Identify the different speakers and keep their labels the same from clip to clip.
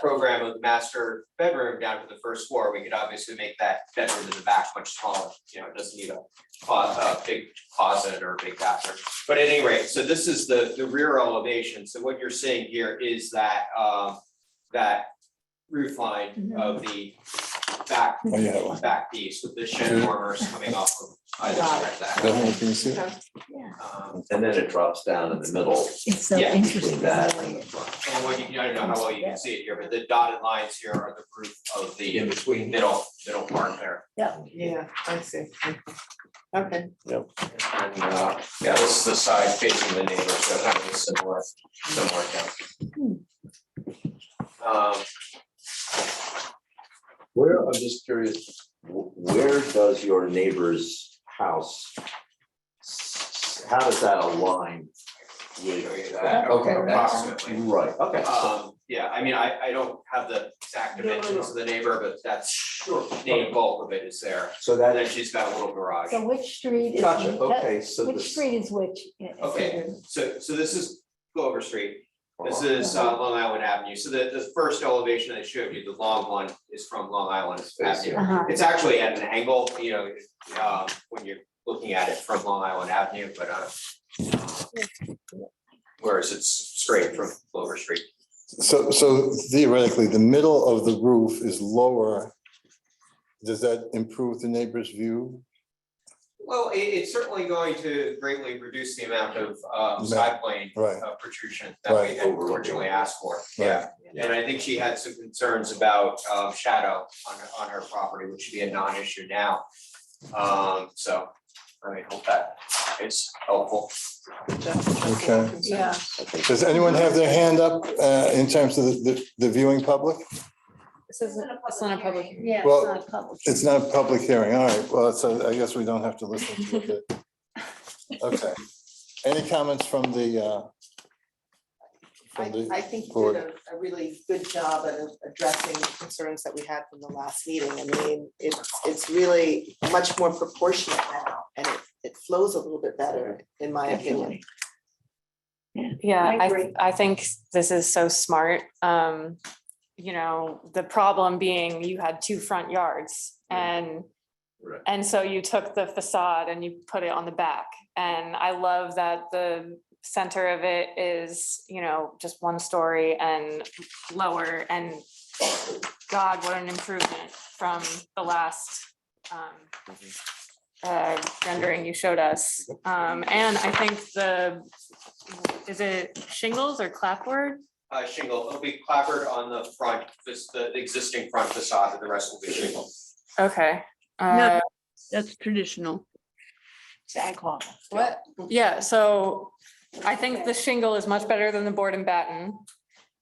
Speaker 1: program of master bedroom down to the first floor, we could obviously make that bedroom in the back much smaller, you know, it doesn't need a closet, a big closet or a big bathroom. But at any rate, so this is the, the rear elevation, so what you're seeing here is that, uh, that roof line of the back,
Speaker 2: Oh, yeah.
Speaker 1: back piece with the shed dormers coming off of either side of that.
Speaker 2: Definitely, can you see it?
Speaker 1: Um,
Speaker 3: And then it drops down in the middle
Speaker 4: It's so
Speaker 1: Yeah.
Speaker 3: between
Speaker 4: interesting.
Speaker 3: that and the front.
Speaker 1: And what you, I don't know how well you can see it here, but the dotted lines here are the roof of
Speaker 3: In
Speaker 1: the
Speaker 3: between.
Speaker 1: middle, middle part there.
Speaker 5: Yeah, I see. Okay,
Speaker 1: And, uh, yeah, this is the side facing the neighbor, so kind of a similar, similar count. Um,
Speaker 3: Where, I'm just curious, wh- where does your neighbor's house? s- How does that align with that? Oh, Okay, that's Ah.
Speaker 1: Approximately.
Speaker 3: right, okay. so-
Speaker 1: um, yeah, I mean, I, I don't have the exact
Speaker 5: No, no, no.
Speaker 1: dimensions of the neighbor, but that's sure, main bulk of it is there.
Speaker 3: So
Speaker 1: And then
Speaker 3: that,
Speaker 1: she's got a little garage.
Speaker 4: So which street is?
Speaker 3: gotcha, okay, so
Speaker 4: Which
Speaker 3: this.
Speaker 4: street is which? Yeah, it's
Speaker 1: Okay.
Speaker 4: either-
Speaker 1: So, so this is Glover Street.
Speaker 3: Uh-huh.
Speaker 1: This is uh, Long Island Avenue, so the, the first elevation I showed you, the long one, is from Long Island Avenue.
Speaker 4: Uh-huh.
Speaker 1: It's actually at an angle, you know, um, when you're looking at it from Long Island Avenue, but, uh, whereas it's straight from Glover Street.
Speaker 2: So, so theoretically, the middle of the roof is lower. Does that improve the neighbor's view?
Speaker 1: Well, it, it's certainly going to greatly reduce the amount of, uh, side plane
Speaker 2: Right,
Speaker 1: uh, protrusion that we
Speaker 2: Right.
Speaker 1: had originally asked for, yeah.
Speaker 2: Right.
Speaker 1: And I think she had some concerns about, um, shadow on, on her property, which should be a non-issue now. Um, so, I mean, hope that is helpful.
Speaker 2: okay.
Speaker 5: yeah,
Speaker 2: Does anyone have their hand up uh, in terms of the- the, the viewing public?
Speaker 6: This isn't, it's not a public. hearing.
Speaker 4: Yeah, it's
Speaker 2: Well,
Speaker 4: not public.
Speaker 2: It's not a public hearing, all right, well, so I guess we don't have to listen to it. Okay, any comments from the, uh,
Speaker 5: I,
Speaker 2: from the,
Speaker 5: I think you
Speaker 2: board.
Speaker 5: did a, a really good job at addressing the concerns that we had from the last meeting. I mean, it's, it's really much more proportionate now, and it, it flows a little bit better, in my opinion.
Speaker 6: Yeah,
Speaker 5: I
Speaker 6: I, th-
Speaker 5: agree.
Speaker 6: I think this is so smart. Um, you know, the problem being you had two front yards and
Speaker 3: Right.
Speaker 6: and so you took the facade and you put it on the back. And I love that the center of it is, you know, just one story and lower and God, what an improvement from the last um uh, rendering you showed us. Um, and I think the, is it shingles or clapboard?
Speaker 1: Uh, shingle, it'll be clappered on the front, this, the the existing front facade, and the rest will be shingle.
Speaker 6: Okay.
Speaker 7: No.
Speaker 6: Uh,
Speaker 7: That's traditional.
Speaker 4: Sag harbor.
Speaker 6: what? Yeah, so I think the shingle is much better than the board and batten.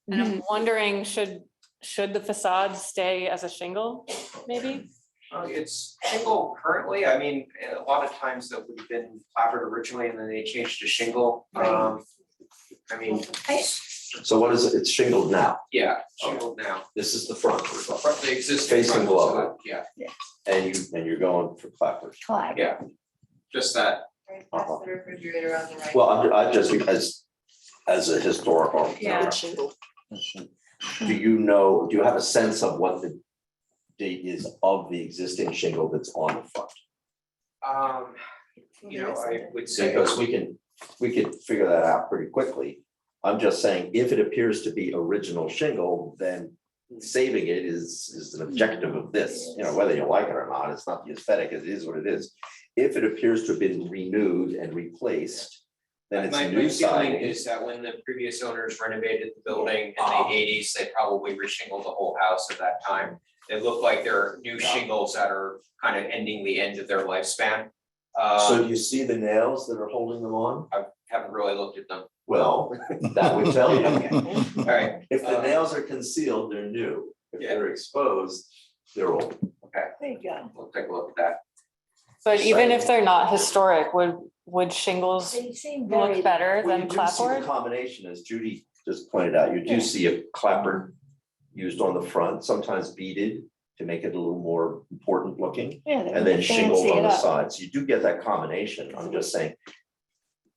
Speaker 6: And I'm wondering, should, should the facade stay as a shingle, maybe?
Speaker 1: Uh, it's shingle currently, I mean, a lot of times that would have been clappered originally and then they changed to shingle, um. I mean,
Speaker 3: So what is, it? it's shingled now,
Speaker 1: yeah, shingle now,
Speaker 3: this is the front, we're talking about.
Speaker 1: Front- the existing
Speaker 3: Facing
Speaker 1: front
Speaker 3: below.
Speaker 1: facade, yeah,
Speaker 3: and you, and you're going for clappers.
Speaker 4: Clive.
Speaker 1: just that,
Speaker 3: Uh-huh.
Speaker 5: the refrigerator on the right.
Speaker 3: Well, I'm, I just, as, as a historical.
Speaker 6: Yeah.
Speaker 5: Good shingle.
Speaker 2: uh,
Speaker 3: Do you know, do you have a sense of what the date is of the existing shingle that's on the front?
Speaker 1: um, you know, I would say.
Speaker 3: Because we can, we could figure that out pretty quickly. I'm just saying, if it appears to be original shingle, then saving it is, is an objective of this. You know, whether you like it or not, it's not the aesthetic, it is what it is. If it appears to have been renewed and replaced, then it's
Speaker 1: My-
Speaker 3: new
Speaker 1: My feeling
Speaker 3: siding.
Speaker 1: is that when the previous owners renovated the building in
Speaker 3: Uh-huh.
Speaker 1: the eighties, they probably reshingled the whole house at that time. They look like they're new shingles that are kind of ending the end of their lifespan.
Speaker 3: So
Speaker 1: Uh,
Speaker 3: do you see the nails that are holding them on?
Speaker 1: I haven't really looked at them.
Speaker 3: Well, that would tell you.
Speaker 1: All right,
Speaker 3: If the
Speaker 1: Uh,
Speaker 3: nails are concealed, they're new. If
Speaker 1: Yeah.
Speaker 3: they're exposed, they're old.
Speaker 4: There you go.
Speaker 1: we'll take a look at that.
Speaker 6: But even if they're not historic, would, would shingles
Speaker 4: They seem very.
Speaker 6: look better
Speaker 3: Well, you
Speaker 6: than
Speaker 3: do see the
Speaker 6: clapboard?
Speaker 3: combination, as Judy just pointed out, you do see a clapper used on the front, sometimes beaded to make it a little more important looking,
Speaker 4: Yeah, they're
Speaker 3: and then shingled
Speaker 4: fancy
Speaker 3: on
Speaker 4: it
Speaker 3: the
Speaker 4: up.
Speaker 3: sides. You do get that combination. I'm just saying,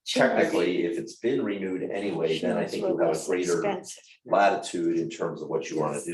Speaker 3: technically, if it's been renewed anyway, then I think you
Speaker 4: Shingles
Speaker 3: have a
Speaker 4: were less
Speaker 3: greater
Speaker 4: expensive.
Speaker 3: latitude in terms of what you want to do.